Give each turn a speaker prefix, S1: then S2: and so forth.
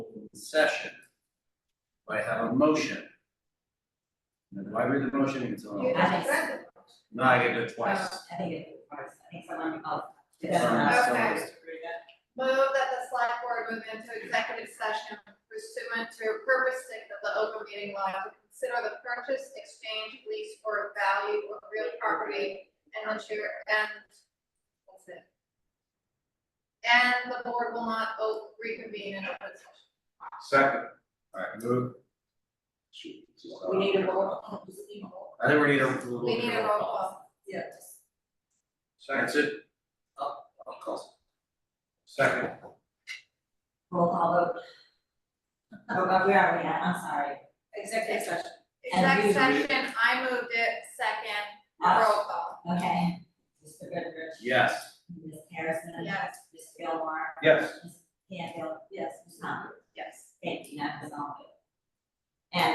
S1: session. Do I have a motion? Now, do I read the motion until?
S2: You
S3: I
S2: have
S3: think-
S2: to read them.
S1: No, I get to do it twice.
S3: I think it was, I think someone, oh. it doesn't
S1: Sorry,
S3: matter.
S1: so
S2: Okay.
S1: moved.
S2: Move that the select board move into executive session pursuant to purpose six of the open meeting law to consider the purchase, exchange, lease, or value of real property and the chair and that's it. And the board will not vote reconvene in open session.
S1: Second. Alright, move. Shoot, this is, uh,
S3: We need a roll. call. Just need a roll.
S1: I think we need a. little
S2: We
S1: bit
S2: need
S1: of
S2: a roll call.
S3: Yeah, just.
S1: That's it. Oh, of course. Second.
S3: Roll call vote. Oh, but we already had, I'm sorry. Executive session. And we-
S2: Exec session, I moved it, second,
S3: Uh,
S2: roll call.
S3: Okay. Mr. Goodrich.
S1: Yes.
S3: Ms. Harrison.
S2: Yes,
S3: Ms. Gilmore.
S1: Yes.
S3: Ms. Campbell. Yes. Ms. Hunt.
S2: yes.
S3: Thank you, that was all.